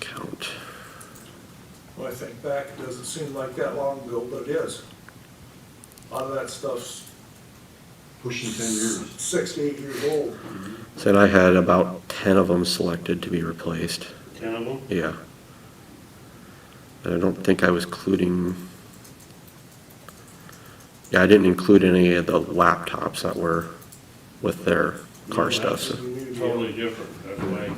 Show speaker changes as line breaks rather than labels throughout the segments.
Count.
When I think back, it doesn't seem like that long ago, but it is. A lot of that stuff's
pushing ten years.
six to eight years old.
Said I had about ten of them selected to be replaced,
Ten of them?
yeah. And I don't think I was including, yeah, I didn't include any of the laptops that were with their car stuff, so.
You need to go-
Totally different, that way.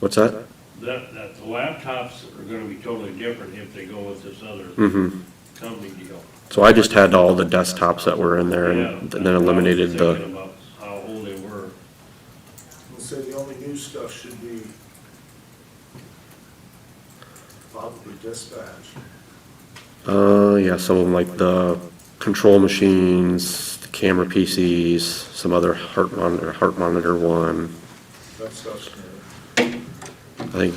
What's that?
That, that the laptops are gonna be totally different if they go with this other
Mm-hmm.
company deal.
So I just had all the desktops that were in there
Yeah,
and
that's what I
then
was
eliminated uh, the,
Thinking about how old they were.
and say the only new stuff should be probably dispatch.
uh, yeah, some of them like the control machines, the camera PCs, some other heart monitor, heart monitor one.
That stuff's new.
I think,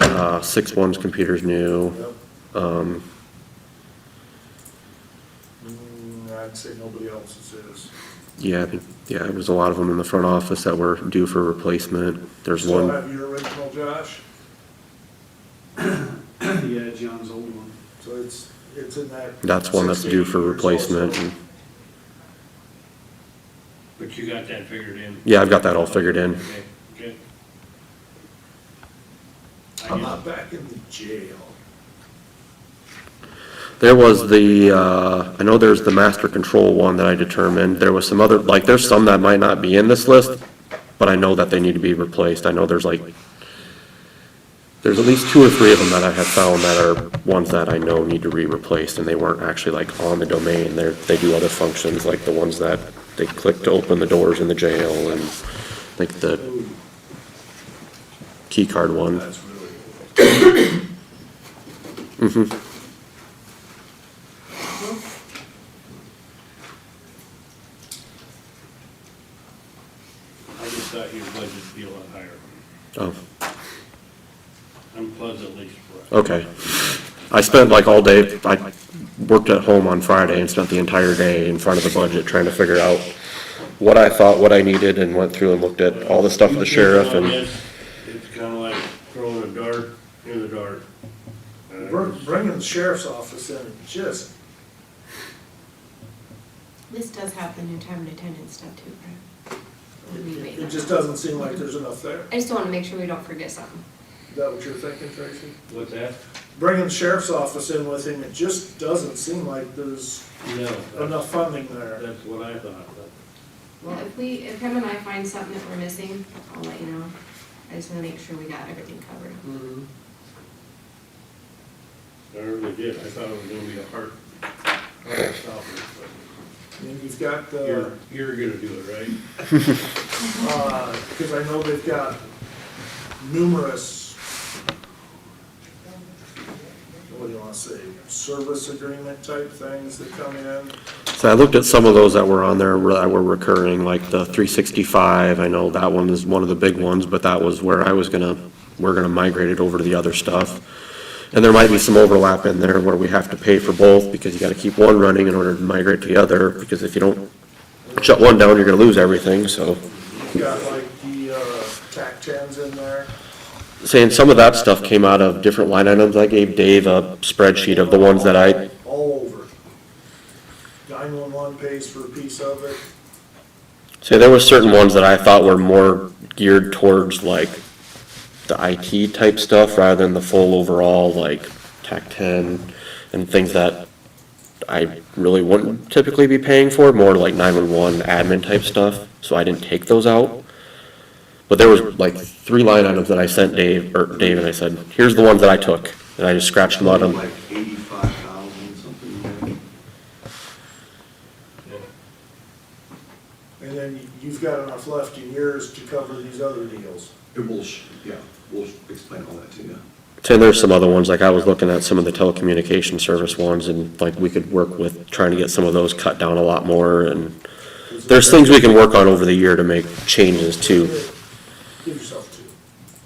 uh, six one's computer's new.
Yep.
Um,
Mm, I'd say nobody else's is.
yeah, I think, yeah, it was a lot of them in the front office that were due for replacement. There's
Still
one,
have your original, Josh?
Yeah, John's old one.
So it's, it's in that.
that's one that's
60
due for
years old,
replacement.
so-
and-
But you got that figured in?
Yeah, I've got that all figured in.
Okay, good.
How
I
about back in the jail?
There was the, uh, I know there's the master control one that I determined, there was some other, like, there's some that might not be in this list, but I know that they need to be replaced, I know there's like, there's at least two or three of them that I have found that are ones that I know need to be replaced, and they weren't actually like on the domain, they're, they do other functions, like the ones that they click to open the doors in the jail, and like the
Ooh,
key card one.
that's really old.
Mhm.
I just thought your budget would be a lot higher.
Oh,
I'm pleasantly surprised.
okay. I spent like all day, I worked at home on Friday and spent the entire day in front of the budget trying to figure out what I thought, what I needed, and went through and looked at all the stuff with the sheriff and,
It's kinda like throwing a dart in the dark. Uh,
Br- Bringing the sheriff's office in, just,
This does have the new time and attendance stuff too, right? Or we made
it
that
just
up?
doesn't seem like there's enough there.
I just want to make sure we don't forget something.
Is that what you're thinking, Tracy?
What's that?
Bringing the sheriff's office in with him, it just doesn't seem like there's
No.
enough funding there.
That's what I thought, but.
Well, if we, if him and I find something that we're missing, I'll let you know. I just want to make sure we got everything covered.
I really did, I thought it was gonna be a hard, hard stop,
And you've got
but
the,
you're, you're gonna do it, right?
because uh, I know they've got numerous, what do you want to say, service agreement type things that come in.
so I looked at some of those that were on there that were recurring, like the three sixty-five, I know that one is one of the big ones, but that was where I was gonna, we're gonna migrate it over to the other stuff. And there might be some overlap in there where we have to pay for both, because you gotta keep one running in order to migrate to the other, because if you don't shut one down, you're gonna lose everything, so.
You've got like the uh, TAC tens in there.
Saying some of that stuff came out of different line items, I gave Dave a spreadsheet of the ones that I,
All over. Nine-one-one pays for a piece of it.
so there were certain ones that I thought were more geared towards like the IT type stuff rather than the full overall like TAC ten and things that I really wouldn't typically be paying for, more like nine-one-one admin type stuff, so I didn't take those out. But there was like three line items that I sent Dave, or Dave, and I said, here's the ones that I took, and I just scratched them out of.
Like eighty-five thousand, something like that.
And then you've got enough left in yours to cover these other deals.
It will, sh- yeah, we'll sh- explain all that to you.
And there's some other ones, like I was looking at some of the telecommunication service ones, and like we could work with trying to get some of those cut down a lot more, and there's things we can work on over the year to make changes to,
Give yourself two.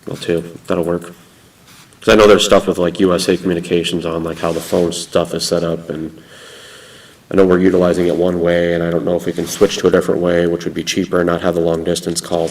well, too, that'll work. Because I know there's stuff with like USA Communications on, like how the phone stuff is set up, and I know we're utilizing it one way, and I don't know if we can switch to a different way, which would be cheaper, and not have the long distance calls